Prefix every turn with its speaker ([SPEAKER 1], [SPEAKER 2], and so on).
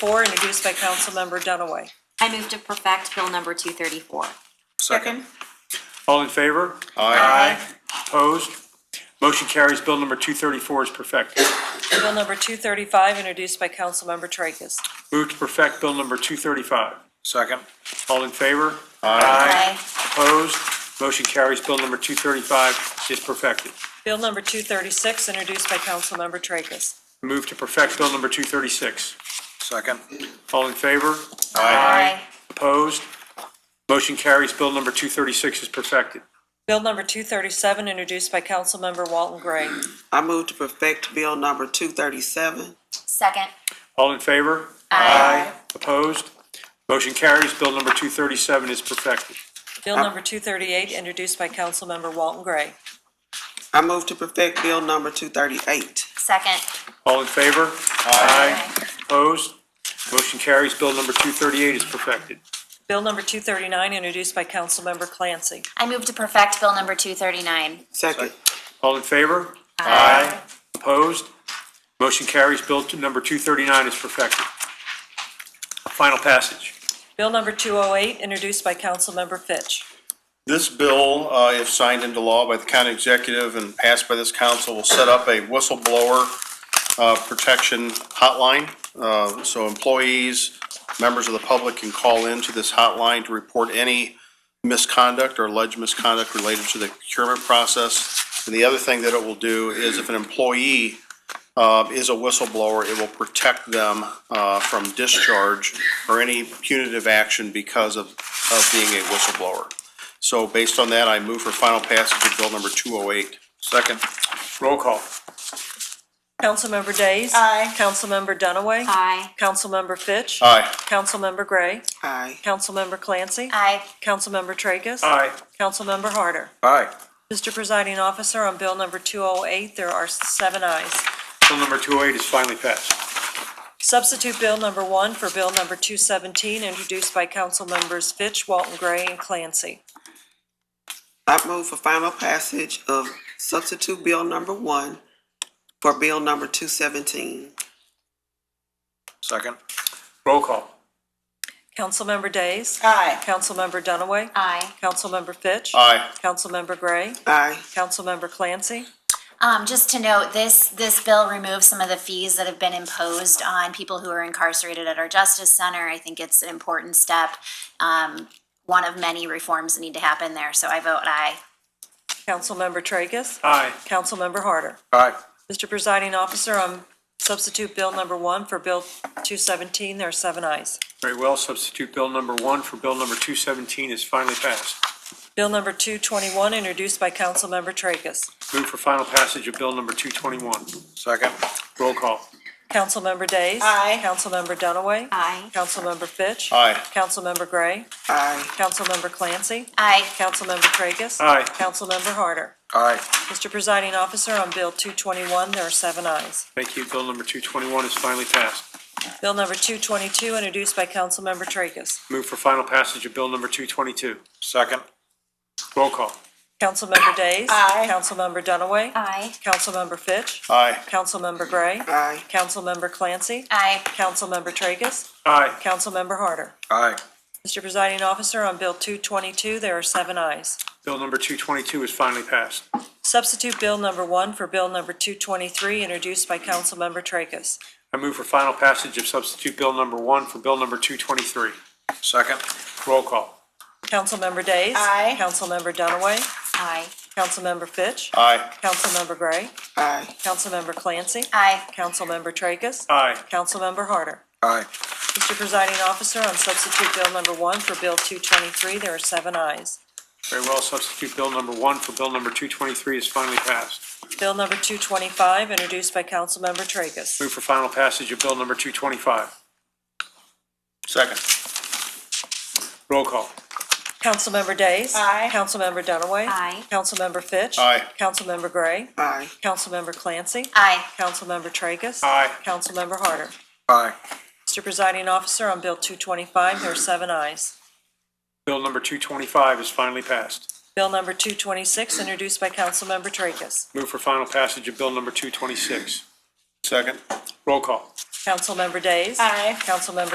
[SPEAKER 1] four, introduced by Councilmember Dunaway.
[SPEAKER 2] I move to perfect Bill number 234.
[SPEAKER 3] Second.
[SPEAKER 4] All in favor?
[SPEAKER 3] Aye.
[SPEAKER 4] Opposed? Motion carries. Bill number 234 is perfected.
[SPEAKER 1] Bill number 235, introduced by Councilmember Tracus.
[SPEAKER 4] Move to perfect Bill number 235.
[SPEAKER 3] Second.
[SPEAKER 4] All in favor? Aye. Opposed? Motion carries. Bill number 235 is perfected.
[SPEAKER 1] Bill number 236, introduced by Councilmember Tracus.
[SPEAKER 4] Move to perfect Bill number 236.
[SPEAKER 3] Second.
[SPEAKER 4] All in favor?
[SPEAKER 3] Aye.
[SPEAKER 4] Opposed? Motion carries. Bill number 236 is perfected.
[SPEAKER 1] Bill number 237, introduced by Councilmember Walton Gray.
[SPEAKER 5] I move to perfect Bill number two thirty-seven.
[SPEAKER 2] Second.
[SPEAKER 4] All in favor? Aye. Opposed? Motion carries. Bill number 237 is perfected.
[SPEAKER 1] Bill number 238, introduced by Councilmember Walton Gray.
[SPEAKER 5] I move to perfect Bill number two thirty-eight.
[SPEAKER 2] Second.
[SPEAKER 4] All in favor? Aye. Opposed? Motion carries. Bill number 238 is perfected.
[SPEAKER 1] Bill number 239, introduced by Councilmember Clancy.
[SPEAKER 2] I move to perfect Bill number 239.
[SPEAKER 5] Second.
[SPEAKER 4] All in favor? Aye. Opposed? Motion carries. Bill t- number 239 is perfected. Final passage.
[SPEAKER 1] Bill number 208, introduced by Councilmember Fitch.
[SPEAKER 6] This bill, uh, if signed into law by the county executive and passed by this council, will set up a whistleblower uh, protection hotline. Uh, So employees, members of the public can call into this hotline to report any misconduct or alleged misconduct related to the procurement process. And the other thing that it will do is if an employee uh, is a whistleblower, it will protect them uh, from discharge or any punitive action because of of being a whistleblower. So based on that, I move for final passage of bill number 208.
[SPEAKER 3] Second.
[SPEAKER 4] Roll call.
[SPEAKER 1] Councilmember Days. Aye. Councilmember Dunaway.
[SPEAKER 2] Aye.
[SPEAKER 1] Councilmember Fitch.
[SPEAKER 6] Aye.
[SPEAKER 1] Councilmember Gray.
[SPEAKER 5] Aye.
[SPEAKER 1] Councilmember Clancy.
[SPEAKER 2] Aye.
[SPEAKER 1] Councilmember Tracus.
[SPEAKER 4] Aye.
[SPEAKER 1] Councilmember Harder.
[SPEAKER 3] Aye.
[SPEAKER 1] Mr. Presiding Officer, on bill number 208, there are seven ayes.
[SPEAKER 4] Bill number 208 is finally passed.
[SPEAKER 1] Substitute bill number one for bill number 217, introduced by Councilmembers Fitch, Walton Gray, and Clancy.
[SPEAKER 5] I move for final passage of substitute Bill number one for Bill number two seventeen.
[SPEAKER 3] Second.
[SPEAKER 4] Roll call.
[SPEAKER 1] Councilmember Days. Aye. Councilmember Dunaway.
[SPEAKER 2] Aye.
[SPEAKER 1] Councilmember Fitch.
[SPEAKER 6] Aye.
[SPEAKER 1] Councilmember Gray.
[SPEAKER 5] Aye.
[SPEAKER 1] Councilmember Clancy.
[SPEAKER 7] Um, just to note, this, this bill removes some of the fees that have been imposed on people who are incarcerated at our Justice Center. I think it's an important step, um, one of many reforms that need to happen there, so I vote aye.
[SPEAKER 1] Councilmember Tracus.
[SPEAKER 4] Aye.
[SPEAKER 1] Councilmember Harder.
[SPEAKER 3] Aye.
[SPEAKER 1] Mr. Presiding Officer, on substitute bill number one for bill 217, there are seven ayes.
[SPEAKER 4] Very well. Substitute bill number 1 for bill number 217 is finally passed.
[SPEAKER 1] Bill number 221, introduced by Councilmember Tracus.
[SPEAKER 4] Move for final passage of bill number 221.
[SPEAKER 3] Second.
[SPEAKER 4] Roll call.
[SPEAKER 1] Councilmember Days. Aye. Councilmember Dunaway.
[SPEAKER 2] Aye.
[SPEAKER 1] Councilmember Fitch.
[SPEAKER 6] Aye.
[SPEAKER 1] Councilmember Gray.
[SPEAKER 5] Aye.
[SPEAKER 1] Councilmember Clancy.
[SPEAKER 7] Aye.
[SPEAKER 1] Councilmember Tracus.
[SPEAKER 4] Aye.
[SPEAKER 1] Councilmember Harder.
[SPEAKER 3] Aye.
[SPEAKER 1] Mr. Presiding Officer, on bill 221, there are seven ayes.
[SPEAKER 4] Thank you. Bill number 221 is finally passed.
[SPEAKER 1] Bill number 222, introduced by Councilmember Tracus.
[SPEAKER 4] Move for final passage of bill number 222.
[SPEAKER 3] Second.
[SPEAKER 4] Roll call.
[SPEAKER 1] Councilmember Days. Aye. Councilmember Dunaway.
[SPEAKER 7] Aye.
[SPEAKER 1] Councilmember Fitch.
[SPEAKER 6] Aye.
[SPEAKER 1] Councilmember Gray.
[SPEAKER 5] Aye.
[SPEAKER 1] Councilmember Clancy.
[SPEAKER 7] Aye.
[SPEAKER 1] Councilmember Tracus.
[SPEAKER 4] Aye.
[SPEAKER 1] Councilmember Harder.
[SPEAKER 3] Aye.
[SPEAKER 1] Mr. Presiding Officer, on Bill 222, there are seven ayes.
[SPEAKER 4] Bill number 222 is finally passed.
[SPEAKER 1] Substitute Bill Number 1 for Bill Number 223, introduced by Councilmember Tracus.
[SPEAKER 4] I move for final passage of substitute bill number 1 for bill number 223.
[SPEAKER 3] Second.
[SPEAKER 4] Roll call.
[SPEAKER 1] Councilmember Days. Aye. Councilmember Dunaway.
[SPEAKER 2] Aye.
[SPEAKER 1] Councilmember Fitch.
[SPEAKER 6] Aye.
[SPEAKER 1] Councilmember Gray.
[SPEAKER 5] Aye.
[SPEAKER 1] Councilmember Clancy.
[SPEAKER 7] Aye.
[SPEAKER 1] Councilmember Tracus.
[SPEAKER 4] Aye.
[SPEAKER 1] Councilmember Harder.
[SPEAKER 3] Aye.
[SPEAKER 1] Mr. Presiding Officer, on Substitute Bill Number 1 for Bill 223, there are seven ayes.
[SPEAKER 4] Very well. Substitute bill number 1 for bill number 223 is finally passed.
[SPEAKER 1] Bill Number 225, introduced by Councilmember Tracus.
[SPEAKER 4] Move for final passage of bill number 225.
[SPEAKER 6] Second.
[SPEAKER 4] Roll call.
[SPEAKER 1] Councilmember Days. Aye. Councilmember Dunaway.
[SPEAKER 2] Aye.
[SPEAKER 1] Councilmember Fitch.
[SPEAKER 6] Aye.
[SPEAKER 1] Councilmember Gray.
[SPEAKER 5] Aye.
[SPEAKER 1] Councilmember Clancy.
[SPEAKER 7] Aye.
[SPEAKER 1] Councilmember Tracus.
[SPEAKER 4] Aye.
[SPEAKER 1] Councilmember Harder.
[SPEAKER 3] Aye.
[SPEAKER 1] Mr. Presiding Officer, on Bill 225, there are seven ayes.
[SPEAKER 4] Bill number 225 is finally passed.
[SPEAKER 1] Bill number 226, introduced by Councilmember Tracus.
[SPEAKER 4] Move for final passage of bill number 226.
[SPEAKER 6] Second.
[SPEAKER 4] Roll call.
[SPEAKER 1] Councilmember Days.
[SPEAKER 8] Aye.
[SPEAKER 1] Councilmember